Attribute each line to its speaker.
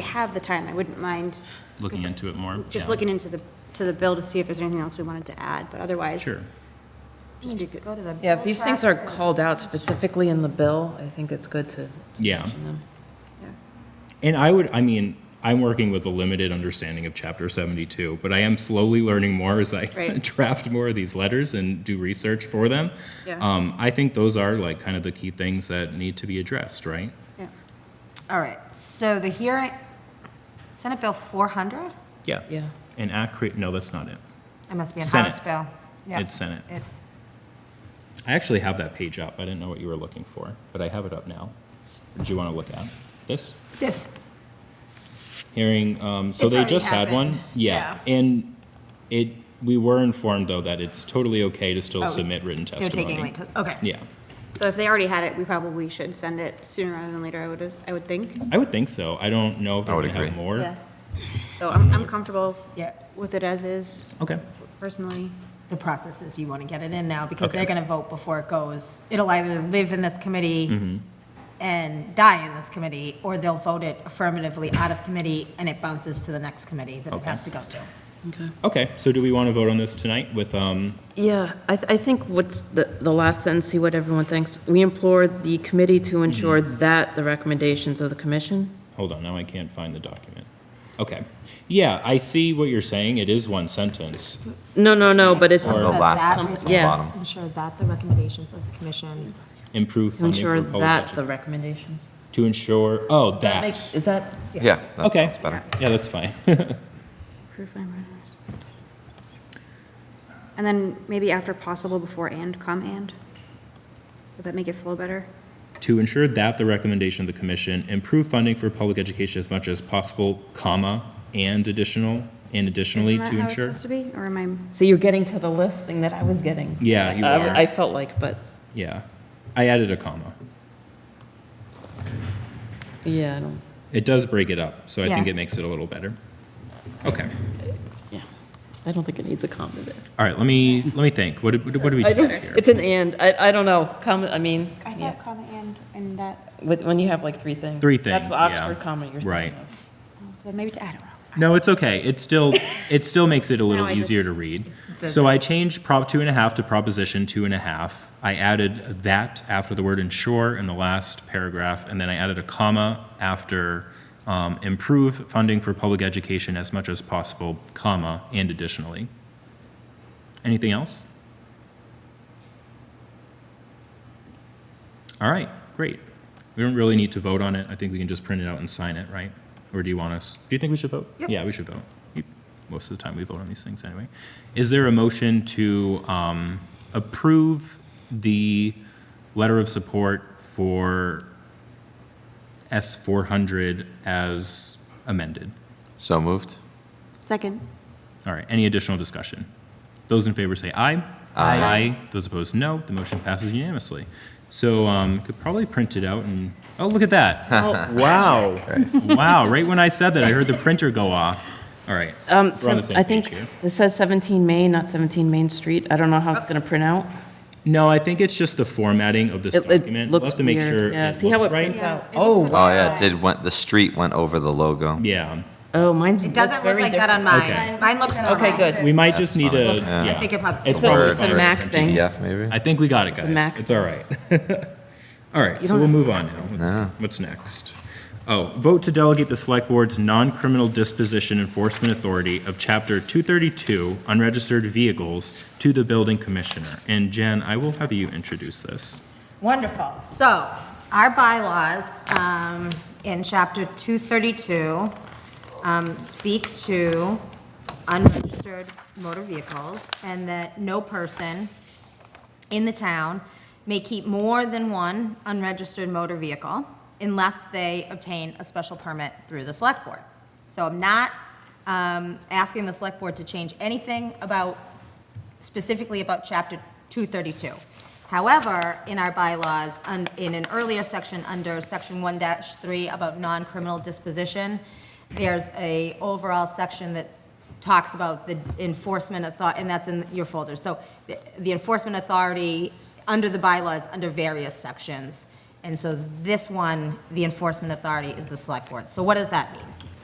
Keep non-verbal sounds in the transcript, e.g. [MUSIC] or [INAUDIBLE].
Speaker 1: have the time, I wouldn't mind.
Speaker 2: Looking into it more?
Speaker 1: Just
Speaker 2: yeah.
Speaker 1: looking into the, to the bill to see if there's anything else we wanted to add, but otherwise.
Speaker 2: Sure.
Speaker 1: just be good.
Speaker 3: Go to the.
Speaker 4: Yeah, if these things are called out specifically in the bill, I think it's good to to
Speaker 2: Yeah.
Speaker 4: mention them.
Speaker 2: And I would, I mean, I'm working with a limited understanding of Chapter 72, but I am slowly learning more as I [LAUGHS]
Speaker 1: Right.
Speaker 2: draft more of these letters and do research for them.
Speaker 1: Yeah.
Speaker 2: Um, I think those are like kind of the key things that need to be addressed, right?
Speaker 1: Yeah.
Speaker 3: All right, so the hearing, Senate Bill 400?
Speaker 2: Yeah.
Speaker 4: Yeah.
Speaker 2: And accurate, no, that's not it.
Speaker 3: It must be a
Speaker 2: Senate.
Speaker 3: House bill. Yeah,
Speaker 2: It's Senate.
Speaker 3: It's,
Speaker 2: I actually have that page up. I didn't know what you were looking for, but I have it up now. Do you want to look at this?
Speaker 3: this,
Speaker 2: hearing, um, so
Speaker 3: It's
Speaker 2: they
Speaker 3: already
Speaker 2: just had one?
Speaker 3: happened.
Speaker 2: Yeah, and it, we were informed, though, that it's totally okay to still
Speaker 3: Oh,
Speaker 2: submit written
Speaker 3: they're taking
Speaker 2: testimony.
Speaker 3: late, okay.
Speaker 2: Yeah,
Speaker 1: So if they already had it, we probably should send it sooner rather than later, I would, I would think.
Speaker 2: I would think so. I don't know if they're
Speaker 5: I would
Speaker 2: gonna have
Speaker 5: agree.
Speaker 2: more.
Speaker 1: Yeah. So I'm, I'm comfortable
Speaker 3: Yeah,
Speaker 1: with it as is
Speaker 2: Okay,
Speaker 1: personally.
Speaker 3: the process is you want to get it in now, because
Speaker 2: Okay.
Speaker 3: they're going to vote before it goes. It'll either live in this
Speaker 2: Mm-hmm.
Speaker 3: committee and die in this committee, or they'll vote it affirmatively out of committee, and it bounces to the next committee that it has to go to.
Speaker 2: okay, so do we want to vote on this tonight with, um,
Speaker 4: Yeah, I, th- I think what's the, the last sentence, see what everyone thinks. We implore the committee to ensure
Speaker 2: Mm-hmm.
Speaker 4: that the recommendations of the commission.
Speaker 2: hold on, now I can't find the document. Okay, yeah, I see what you're saying. It is one sentence.
Speaker 4: No, no, no, but it's,
Speaker 5: The
Speaker 3: That
Speaker 5: last
Speaker 3: that
Speaker 5: sentence
Speaker 3: is-
Speaker 5: on the
Speaker 4: Yeah.
Speaker 5: bottom.
Speaker 3: Ensure that the recommendations of the commission.
Speaker 2: Improve
Speaker 4: to
Speaker 2: funding
Speaker 4: ensure
Speaker 2: for public
Speaker 4: that the
Speaker 2: education.
Speaker 4: recommendations.
Speaker 2: To ensure, oh,
Speaker 4: That
Speaker 2: that,
Speaker 4: makes- Is that,
Speaker 5: Yeah, that
Speaker 2: Okay.
Speaker 5: sounds better.
Speaker 2: yeah, that's fine. [LAUGHS]
Speaker 1: Proof I'm right. And then maybe after possible, before and, come and. Would that make it flow better?
Speaker 2: to ensure that the recommendation of the commission improve funding for public education as much as possible, comma, and additional, and additionally
Speaker 1: Isn't
Speaker 2: to
Speaker 1: that how it's
Speaker 2: ensure.
Speaker 1: supposed to be? Or am I,
Speaker 4: so you're getting to the list thing that I was getting.
Speaker 2: Yeah, you
Speaker 4: I-
Speaker 2: are.
Speaker 4: I felt like, but,
Speaker 2: Yeah, I added a comma.
Speaker 4: yeah, I don't,
Speaker 2: It does break it up, so I think
Speaker 3: Yeah.
Speaker 2: it makes it a little better. Okay,
Speaker 4: yeah. I don't think it needs a comment there.
Speaker 2: all right, let me, let me think. What did, what did what did we
Speaker 4: I don't,
Speaker 2: decide here?
Speaker 4: it's an and, I, I don't know, comment, I mean,
Speaker 1: I
Speaker 4: yeah.
Speaker 1: thought comma and, and that,
Speaker 4: with, when you have like three things.
Speaker 2: Three
Speaker 4: That's
Speaker 2: things,
Speaker 4: the
Speaker 2: yeah.
Speaker 4: Oxford comment you're
Speaker 2: Right.
Speaker 4: thinking of.
Speaker 1: so maybe to, I don't know.
Speaker 2: No, it's okay. It still, it still
Speaker 1: [LAUGHS]
Speaker 2: makes it a little
Speaker 1: I
Speaker 2: easier
Speaker 1: just-
Speaker 2: to read. So I changed prop two and a half to proposition two and a half. I added that after the word ensure in the last paragraph, and then I added a comma after um, improve funding for public education as much as possible, comma, and additionally. Anything else? All right, great. We don't really need to vote on it. I think we can just print it out and sign it, right? Or do you want us, do you think we should vote? Yeah, we should vote. We- Most of the time, we vote on these things anyway. Is there a motion to um, approve the letter of support for S four hundred as amended?
Speaker 5: So moved.
Speaker 1: Second.
Speaker 2: All right, any additional discussion? Those in favor say aye. Aye. Those opposed, no. The motion passes unanimously. So um, could probably print it out and, oh, look at
Speaker 4: [LAUGHS]
Speaker 2: that. Wow. Wow, right when I said that, I heard the printer go off. All right.
Speaker 4: Um,
Speaker 2: We're on the
Speaker 4: so
Speaker 2: same
Speaker 4: I
Speaker 2: page
Speaker 4: think
Speaker 2: here.
Speaker 4: this says 17 Main, not 17 Main Street. I don't know
Speaker 1: Oh.
Speaker 4: how it's going to print out.
Speaker 2: No, I think it's just the formatting of this
Speaker 4: It- It
Speaker 2: document. We'll
Speaker 4: looks
Speaker 2: have to make
Speaker 4: weird.
Speaker 2: sure
Speaker 4: Yeah,
Speaker 2: it
Speaker 4: see how
Speaker 2: looks
Speaker 4: it
Speaker 2: right.
Speaker 4: prints out?
Speaker 1: Yeah, it looks like-
Speaker 4: Oh,
Speaker 5: Oh, yeah, it did, went, the street went over the logo.
Speaker 2: Yeah.
Speaker 4: oh, mine's,
Speaker 3: It
Speaker 4: looks
Speaker 3: doesn't look
Speaker 4: very
Speaker 3: like that on
Speaker 4: different.
Speaker 2: Okay.
Speaker 3: mine. Mine looks normal.
Speaker 4: Okay, good.
Speaker 2: We might just need
Speaker 5: fine.
Speaker 2: a,
Speaker 5: Yeah.
Speaker 2: yeah.
Speaker 3: I think it probably.
Speaker 2: It's
Speaker 4: a-
Speaker 5: Word
Speaker 4: it's a
Speaker 5: versus
Speaker 4: Mac thing.
Speaker 5: PDF, maybe?
Speaker 2: I think we got it, guys.
Speaker 4: a Mac.
Speaker 2: It's all right. [LAUGHS] All right, so
Speaker 4: don't
Speaker 2: we'll move on now.
Speaker 5: No.
Speaker 2: What's- What's next? Oh, vote to delegate the select board's non-criminal disposition enforcement authority of chapter 232 unregistered vehicles to the building commissioner. And Jen, I will have you introduce this.
Speaker 3: Wonderful. So our bylaws um, in Chapter 232 um, speak to unregistered motor vehicles and that no person in the town may keep more than one unregistered motor vehicle unless they obtain a special permit through the select board. So I'm not um, asking the select board to change anything about specifically about Chapter 232. However, in our bylaws, un- in an earlier section, under Section 1-3 about non-criminal disposition, there's a overall section that talks about the enforcement author, and that's in your folder. So the- the enforcement authority under the bylaws, under various sections. And so this one, the enforcement authority is the select board. So what does that mean?